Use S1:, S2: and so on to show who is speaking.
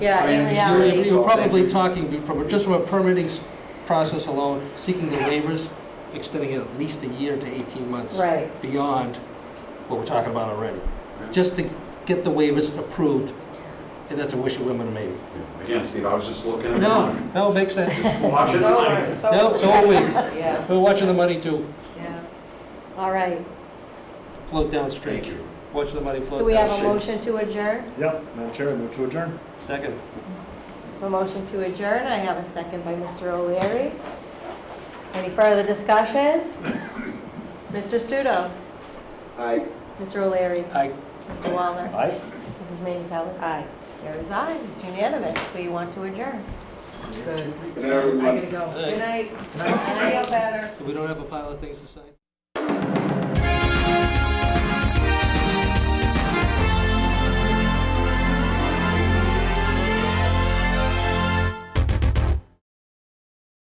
S1: Yeah,
S2: I
S1: in
S2: mean,
S1: reality.
S2: it's-
S3: We were probably talking, from, just from a permitting s- process alone, seeking the waivers, extending it at least a year to 18 months.
S1: Right.
S3: Beyond what we're talking about already,
S2: Yeah.
S3: just to get the waivers approved, and that's a wish of women and maybe.
S2: Again, Steve, I was just looking.
S3: No, no, makes sense.
S2: Just Watching the money.
S1: Oh.
S3: No, so are we.
S4: Yeah,
S3: We're watching the money too
S4: yeah.
S1: All right.
S2: Thank
S3: float downstream.
S2: you.
S3: Watch the money float downstream.
S1: Do we have a motion to adjourn?
S5: Yep, Madam Chair, I move to adjourn.
S3: Second.
S1: A motion to adjourn. I have a second by Mr. O'Leary. Any further discussion? Mr. Studo.
S2: Aye.
S1: Mr. O'Leary.
S3: Aye.
S1: Mr. Wallner.
S5: Aye.
S1: Mrs. Manu Pellet. Aye. There is aye. It's unanimous. We want to adjourn.
S4: Good.
S2: Good night, everyone.
S4: I gotta go. Good night. I feel better.
S3: So we don't have a pile of things to sign?